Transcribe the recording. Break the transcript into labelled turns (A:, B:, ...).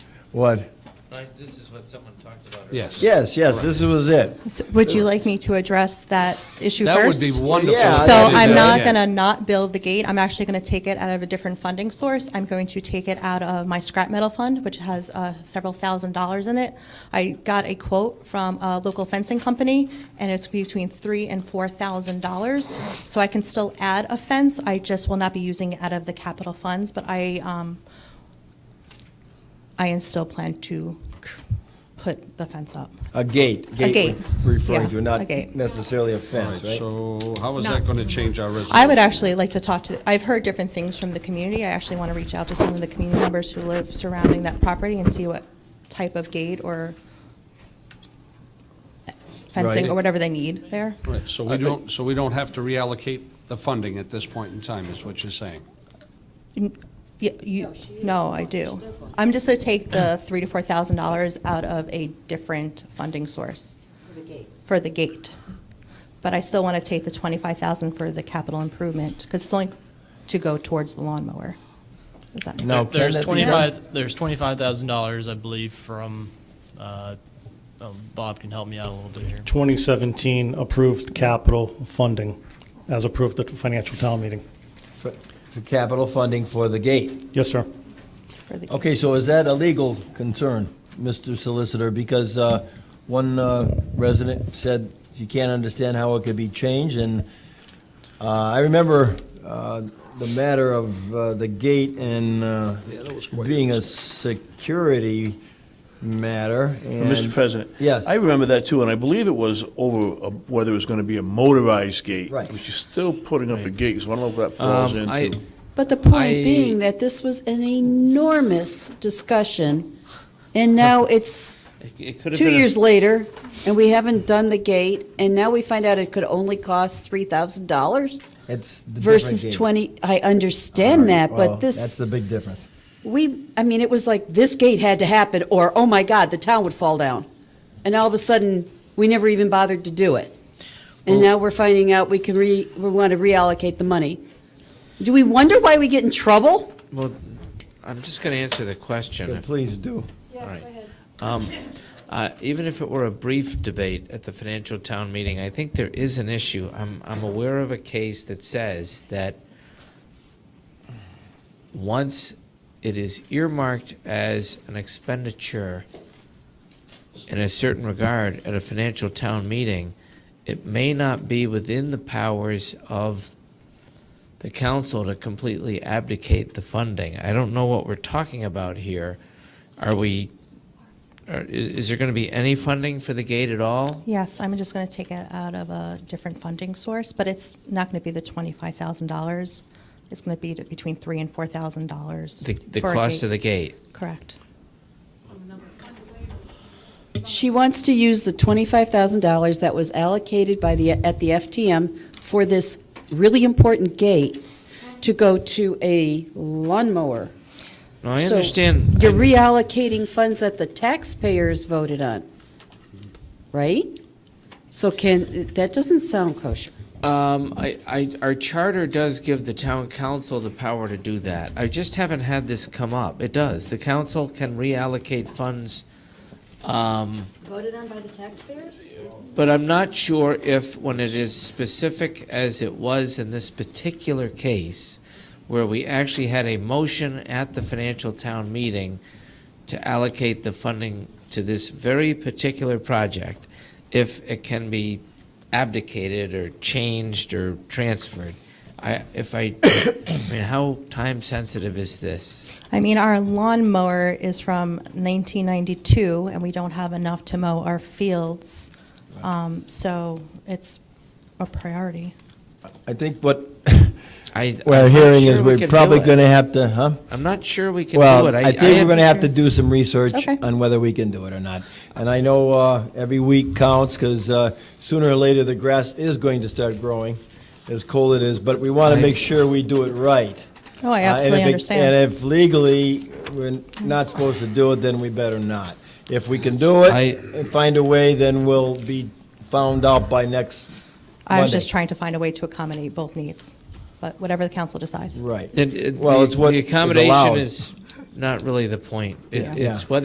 A: What?
B: Like, This is what someone talked about. earlier.
C: Yes.
A: Yes, yes, this was it.
D: So Would you like me to address that issue
C: That would
D: first?
C: be wonderful.
A: Yeah,
C: if
D: So
C: you did
D: I'm
C: that.
D: not
C: Yeah.
D: going to not build the gate. I'm actually going to take it out of a different funding source. I'm going to take it out of my scrap metal fund, which has uh, several thousand dollars in it. I got a quote from a local fencing company, and it's between three and four thousand dollars. So I can still add a fence. I just will not be using it out of the capital funds, but I, um, I am still plan to put the fence up.
A: A gate.
D: gate,
A: we're Referring
D: yeah,
A: to,
D: a
A: not
D: gate.
A: necessarily a
C: All right,
A: fence, right?
C: So how is
E: No.
C: that going to change our resolution?
D: I would actually like to talk to, I've heard different things from the community. I actually want to reach out to some of the community members who live surrounding that property and see what type of gate or fencing
A: Right.
D: or whatever they need there.
C: Right, so we don't, so we don't have to reallocate the funding at this point in time, is what you're saying?
D: Y- You, no, I do. I'm just going to take the three to four thousand dollars out of a different funding source for the gate. But I still want to take the twenty-five thousand for the capital improvement because it's only to go towards the lawnmower. Does that make
A: No.
D: sense?
A: Now, can
E: There's
A: that be
E: twenty-five, there's twenty-five thousand dollars, I believe, from, uh, um, Bob can help me out a little bit here.
F: 2017 approved capital funding, as approved at the financial town meeting.
A: For for capital funding for the gate.
F: Yes, sir.
D: For the gate.
A: Okay, so is that a legal concern, Mr. Solicitor? Because uh, one uh, resident said she can't understand how it could be changed, and uh, I remember uh, the matter of uh, the gate and uh, being a security matter.
G: Mr.
A: and-
G: President?
A: Yes.
G: I remember that too, and I believe it was over uh, whether it was going to be a motorized gate.
A: Right.
G: Which is still putting up a gate, so I don't know if that falls
H: Um, I-
G: into.
I: But the point
H: I-
I: being that this was an enormous discussion, and now it's
B: It could have
I: two
B: been a-
I: years later, and we haven't done the gate, and now we find out it could only cost three thousand dollars
A: It's the different
I: versus
A: gate.
I: twenty. I
A: All
I: understand
A: right,
I: that,
A: well,
I: but
A: That's
I: this
A: the big difference.
I: we. I mean, it was like this gate had to happen, or oh my God, the town would fall down, and all of a sudden we never even bothered to do it, and now we're finding out we can re we want to reallocate the money. Do we wonder why we get in trouble?
H: Well, I'm just going to answer the question.
A: But
H: if-
A: Please do.
H: all right. Um, uh, even if it were a brief debate at the financial town meeting, I think there is an issue. I'm, I'm aware of a case that says that once it is earmarked as an expenditure in a certain regard at a financial town meeting, it may not be within the powers of the council to completely abdicate the funding. I don't know what we're talking about here. Are we, are, is, is there gonna be any funding for the gate at all?
D: Yes, I'm just going to take it out of a different funding source, but it's not going to be the twenty-five thousand dollars. It's going to be to- between three and four thousand dollars.
H: The, the cost of the gate?
D: Correct.
I: She wants to use the twenty-five thousand dollars that was allocated by the, at the FTM for this really important gate to go to a lawnmower.
H: No, I
I: So,
H: understand.
I: You're
H: I-
I: reallocating funds that the taxpayers voted on, right? So can, that doesn't sound kosher.
H: Um, I, I, our charter does give the town council the power to do that. I just haven't had this come up. It does. The council can reallocate funds, um,
I: Voted on by the taxpayers?
H: but I'm not sure if, when it is specific as it was in this particular case, where we actually had a motion at the financial town meeting to allocate the funding to this very particular project, if it can be abdicated or changed or transferred. I, if I, I mean, how time sensitive is this?
D: I mean, our lawnmower is from nineteen ninety-two, and we don't have enough to mow our fields. Um, so it's a
A: Uh,
D: priority.
A: I think what
H: I,
A: we're
H: I'm not
A: hearing
H: sure
A: is
H: we
A: we're
H: can do
A: probably
H: it.
A: going to have to, huh?
H: I'm not sure we can do it.
A: Well, I think we're going to have to
D: understand.
A: do some research
D: Okay.
A: on whether we can do it or not. And I know uh, every week counts because sooner or later, the grass is going to start growing, as cold it is, but we want to make sure we do it right.
D: Oh,
A: Uh, and
D: I absolutely
A: if it-
D: understand.
A: And if legally, we're not supposed to do it, then we better not. If we can do it
H: I-
A: and find a way, then we'll be found out by next
D: I was
A: Monday.
D: just trying to find a way to accommodate both needs, but whatever the council decides.
A: Right.
H: It- it-
A: Well,
H: the-
A: it's what
H: The
A: is allowed.
H: accommodation is not really the point. It-
A: Yeah.
H: It's
A: Yeah.
H: whether